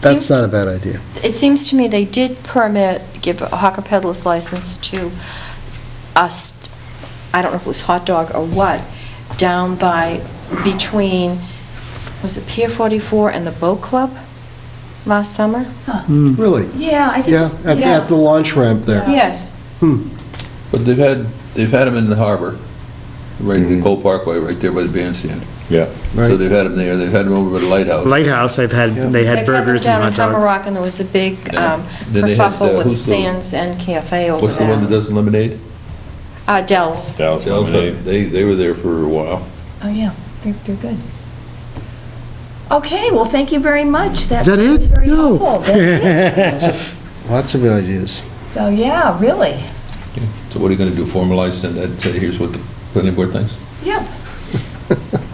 That's seems- not a bad idea. It seems to me they did permit, give a hawker peddler's license to us, I don't know if it was hot dog or what, down by, between, was it Pier 44 and the Boat Club last summer? Hmm. Really? Yeah, I Yeah, at, at the launch ramp there. Yes. Hmm. But they've had, they've had them in the harbor, right in the Cole Parkway, right there by the bandstand. Yeah. So they've had them there, they've had them over by the lighthouse. Lighthouse, I've had, they had burgers and hot They cut them down in dogs. Hammerock, and there was a big Yeah. um, Then they had kerfuffle the- with who's the- Sands and Cafe over there. What's the one that does the lemonade? Uh, Dell's. Dallas They also- Lemonade. They, they were there for a while. Oh, yeah, they're, they're good. Okay, well, thank you very much. Is that it? That's very No. helpful. That's it. Lots of ideas. So, yeah, really, So what are you going to do, formalize, send that, say, here's what the planning board thinks? yeah.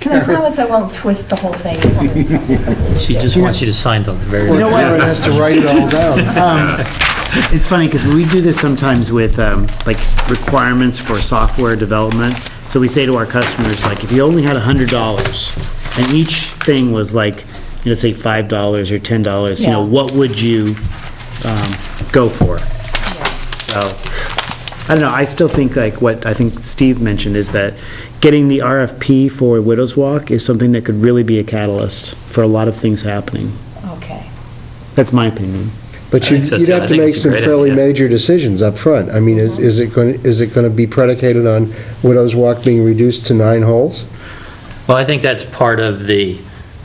Can I promise I won't twist the whole thing? She just wants you to sign something very... Or Karen has to write it all down. It's funny, because we do this sometimes with, um, like, requirements for software development. So we say to our customers, like, if you only had $100, and each thing was like, you know, say $5 or $10, you know, Yeah. what would you um, go for? So, I don't know, I still think like what I think Steve mentioned is that getting the RFP for Widows Walk is something that could really be a catalyst for a lot of things happening. Okay. That's my opinion. But you'd I think so, you'd too. I have to think make it's a some great fairly idea. major decisions up front. I mean, is, is it going, is it going to be predicated on Widows Walk being reduced to nine holes? Well, I think that's part of the,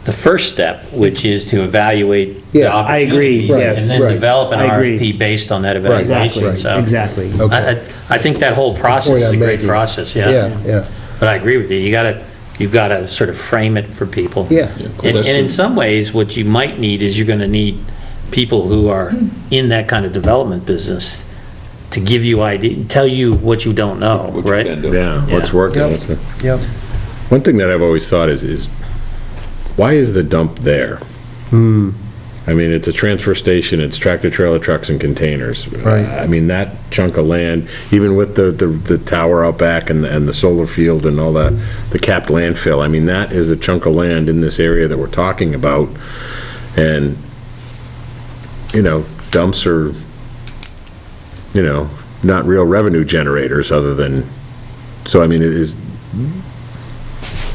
the first step, which is to evaluate the Yeah, I agree, opportunities. yes, And right. then develop an I agree. RFP based on that Right, evaluation, right, so... exactly. Okay. I, I- I think that whole process Point is a I'm great making. process, Yeah, yeah. yeah. But I agree with you, you gotta, you've gotta sort of frame it for people. Yeah. Yeah, 'cause And that's and in the- some ways, what you might need is you're gonna need people who are in that kind of development business to give you idea, tell you what you don't know, what you right? can do. Yeah, what's Yeah. working? Yep. what's not. Yep. One thing that I've always thought is, is why is the dump there? Hmm. I mean, it's a transfer station, it's tractor trailer trucks and containers. Right. I mean, that chunk of land, even with the, the, the tower out back and, and the solar field and all that, the capped landfill, I mean, that is a chunk of land in this area that we're talking about. And, you know, dumps are, you know, not real revenue generators other than, so I mean, it is,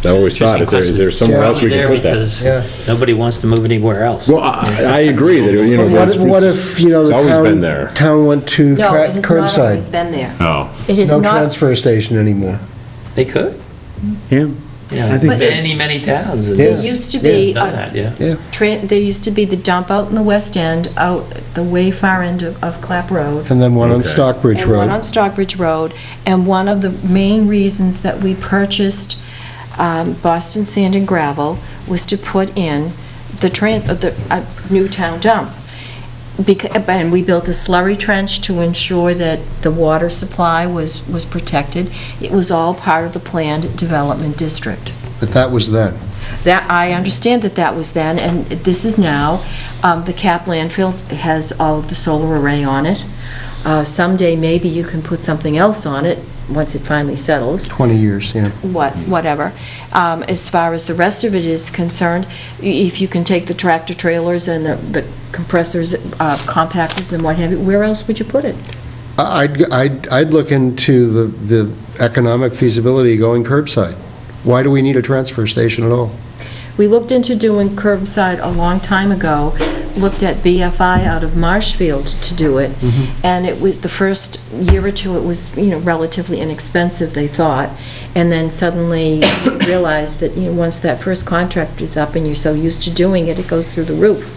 I always thought, is there, is there somewhere else we can put that? Because Yeah. nobody wants to move anywhere else. Well, I, I agree that, you know. But What if, what if, you know, It's the always been town, there. town went to No, cra- it has not always curbside? been there. Oh, It is No not, transfer station anymore. They could, Yeah. yeah, I think- many, many towns. have Yes. It used to Yeah. be, Done a that, yeah. Yeah. tra- there used to be the dump out in the west end, out the way far end of of Clap Road. And then one on Okay. Stockbridge And one Road. on Stockbridge Road, and one of the main reasons that we purchased um, Boston Sand and Gravel was to put in the tran, uh, the uh, new town dump. Becau- And we built a slurry trench to ensure that the water supply was, was protected. It was all part of the planned development district. But that was then. That, I understand that that was then, and this is now. Um, The cap landfill has all of the solar array on it. Uh, Someday, maybe you can put something else on it, once it finally settles, 20 years, yeah. what, whatever. Um, As far as the rest of it is concerned, i- if you can take the tractor trailers and the- the compressors, uh, compactors and what have you, where else would you put it? I- I'd, I'd, I'd look into the, the economic feasibility going curbside. Why do we need a transfer station at all? We looked into doing curbside a long time ago, looked at BFI out of Marshfield to do it, Mm-hmm. and it was, the first year or two, it was, you know, relatively inexpensive, they thought, and then suddenly realized that, you know, once that first contract is up and you're so used to doing it, it goes through the roof.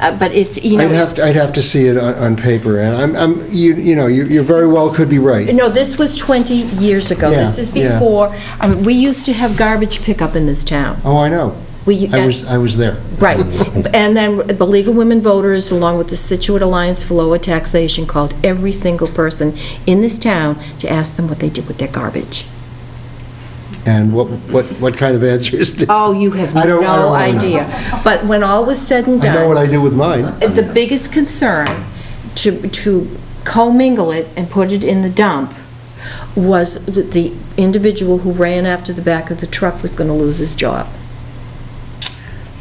Uh, But it's, you know... I'd have, to- I'd have to see it on, on paper, and I'm, I'm, you, you know, you, you very well could be right. No, this was 20 years ago. This Yeah, is yeah. before, I mean, we used to have garbage pickup in this town. Oh, I know. We- I was, I was there. Right. And then the League of Women Voters, along with the Situate Alliance for Lower Taxation, called every single person in this town to ask them what they did with their garbage. And what, what, what kind of answers did? Oh, you have I don't- I no don't wanna know. idea. But when all was said and I done... know what I do with mine. the biggest concern to, to commingle it and put it in the dump was that the individual who ran after the back of the truck was going to lose his job.